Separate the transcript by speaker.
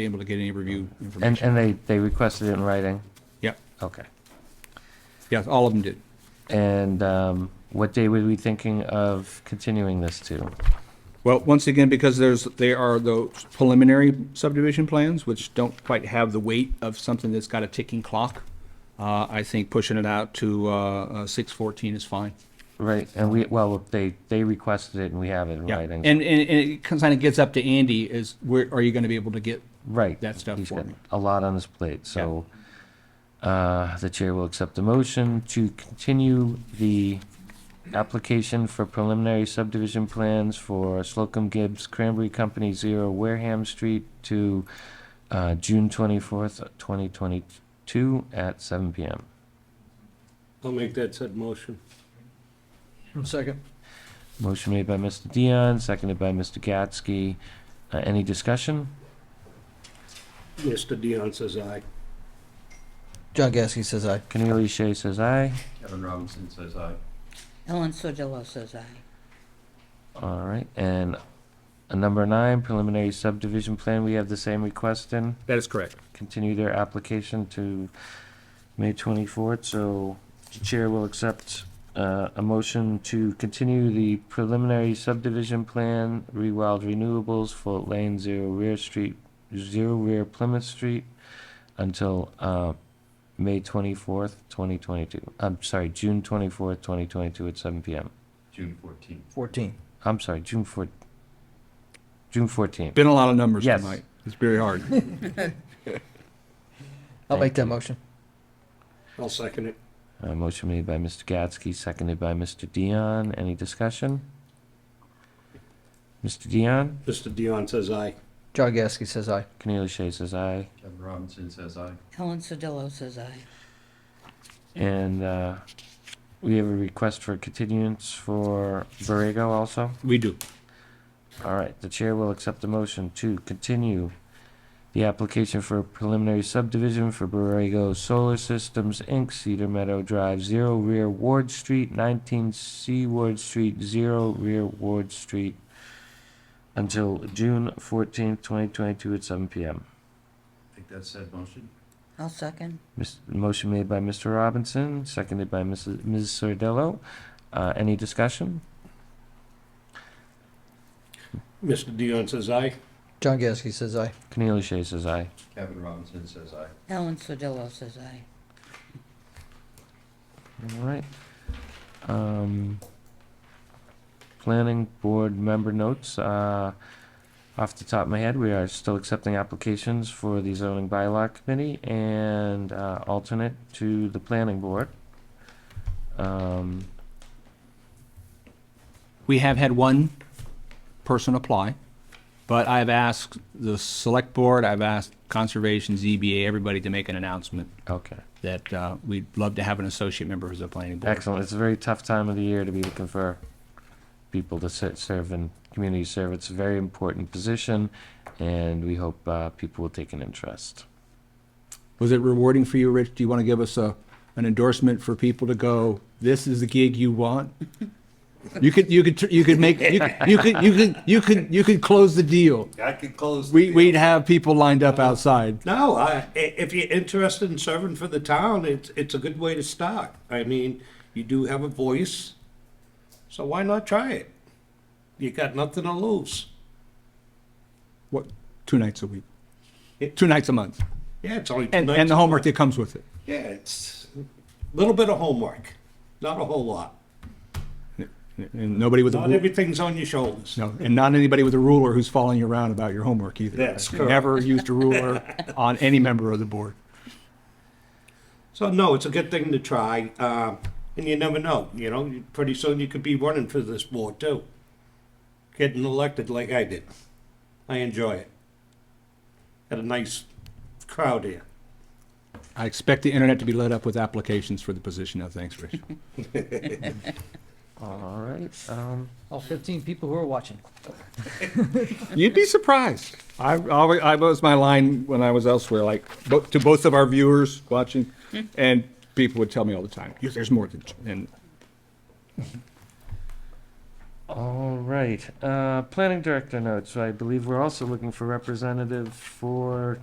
Speaker 1: be able to get any review
Speaker 2: And,
Speaker 1: information.
Speaker 2: and they, they requested it in writing?
Speaker 1: Yep,
Speaker 2: Okay.
Speaker 1: yes, all of them did.
Speaker 2: And um, what day were we thinking of continuing this to?
Speaker 1: Well, once again, because there's, there are those preliminary subdivision plans, which don't quite have the weight of something that's got a ticking clock, uh, I think pushing it out to, uh, six fourteen is fine.
Speaker 2: Right, and we, well, they, they requested it and we have it in
Speaker 1: Yeah,
Speaker 2: writing.
Speaker 1: and, and, and it kind of gets up to Andy is where, are you going to be able to get,
Speaker 2: Right.
Speaker 1: that stuff
Speaker 2: He's
Speaker 1: for
Speaker 2: got
Speaker 1: me.
Speaker 2: A lot on his plate, so uh, the chair will accept the motion to continue the application for preliminary subdivision plans for Slocum Gibbs Cranberry Company Zero Wareham Street to uh, June twenty-fourth, twenty twenty-two at seven PM.
Speaker 3: I'll make that said motion.
Speaker 4: Second.
Speaker 2: Motion made by Mr. Dion, seconded by Mr. Gatsky. Uh, any discussion?
Speaker 3: Mr. Dion says aye.
Speaker 4: John Gasky says aye.
Speaker 2: Cornelia Shea says aye.
Speaker 5: Kevin Robinson says aye.
Speaker 6: Ellen Sordillo says aye.
Speaker 2: All right, and uh, number nine, preliminary subdivision plan, we have the same request in,
Speaker 1: that is correct.
Speaker 2: continue their application to May twenty-fourth, so the chair will accept uh, a motion to continue the preliminary subdivision plan, Rewild Renewables, Fort Lane, Zero Rear Street, Zero Rear Plymouth Street, until uh, May twenty-fourth, twenty twenty-two, I'm sorry, June twenty-fourth, twenty twenty-two at seven PM.
Speaker 5: June fourteenth.
Speaker 4: 14.
Speaker 2: I'm sorry, June four, June fourteenth.
Speaker 1: Been a lot of numbers
Speaker 2: Yes.
Speaker 1: tonight. It's very hard.
Speaker 4: I'll
Speaker 2: Thank
Speaker 4: make that
Speaker 2: you.
Speaker 4: motion.
Speaker 3: I'll second it.
Speaker 2: Uh, motion made by Mr. Gatsky, seconded by Mr. Dion. Any discussion? Mr. Dion,
Speaker 3: Mr. Dion says aye.
Speaker 4: John Gasky says aye.
Speaker 2: Cornelia Shea says aye.
Speaker 5: Kevin Robinson says aye.
Speaker 6: Ellen Sordillo says aye.
Speaker 2: And, uh, we have a request for continuance for Borrego also.
Speaker 1: We do.
Speaker 2: All right, the chair will accept the motion to continue the application for preliminary subdivision for Borrego Solar Systems, Inc., Cedar Meadow Drive, zero rear Ward Street, nineteen C Ward Street, zero rear Ward Street, until June fourteenth, twenty twenty-two at seven PM.
Speaker 5: Make that said motion.
Speaker 6: I'll second.
Speaker 2: Mis- Motion made by Mr. Robinson, seconded by Mrs. Ms. Sardillo. Uh, any discussion?
Speaker 3: Mr. Dion says aye.
Speaker 4: John Gasky says aye.
Speaker 2: Cornelia Shea says aye.
Speaker 5: Kevin Robinson says aye.
Speaker 6: Ellen Sordillo says aye.
Speaker 2: All right. Um, planning board member notes, uh, off the top of my head, we are still accepting applications for the zoning bylaw committee and, uh, alternate to the planning board. Um,
Speaker 1: We have had one person apply, but I've asked the select board, I've asked conservation, ZBA, everybody to make an announcement
Speaker 2: okay,
Speaker 1: that uh, we'd love to have an associate member as the planning board.
Speaker 2: excellent. It's a very tough time of the year to be looking for people to sit, serve in community service. It's a very important position and we hope, uh, people will take an interest.
Speaker 1: Was it rewarding for you, Rich? Do you want to give us a, an endorsement for people to go, this is the gig you want? You could, you could, tr- you could make, you could, you could, you could, you could, you could close the deal.
Speaker 5: I could close.
Speaker 1: We, we'd have people lined up outside.
Speaker 3: No, I, i- if you're interested in serving for the town, it's, it's a good way to start. I mean, you do have a voice, so why not try it? You got nothing to lose.
Speaker 1: What, two nights a week? Two nights a month?
Speaker 3: Yeah, it's only two
Speaker 1: And, and
Speaker 3: nights.
Speaker 1: the homework that comes with it.
Speaker 3: Yeah, it's a little bit of homework, not a whole lot.
Speaker 1: And nobody with a
Speaker 3: Not
Speaker 1: ruler.
Speaker 3: everything's on your shoulders.
Speaker 1: No, and not anybody with a ruler who's following you around about your homework either.
Speaker 3: That's
Speaker 1: I've
Speaker 3: correct.
Speaker 1: Never used a ruler on any member of the board.
Speaker 3: So no, it's a good thing to try, uh, and you never know. You know, you- pretty soon you could be running for this board too, getting elected like I did. I enjoy it. Got a nice crowd here.
Speaker 1: I expect the internet to be lit up with applications for the position now. Thanks, Rich.
Speaker 2: All right, um,
Speaker 4: All 15 people who are watching.
Speaker 1: You'd be surprised. I, always, I was my line when I was elsewhere, like bo- to both of our viewers watching, and people would tell me all the time, "Yeah, "There's more than," and
Speaker 2: All right, uh, planning director notes, I believe we're also looking for representative for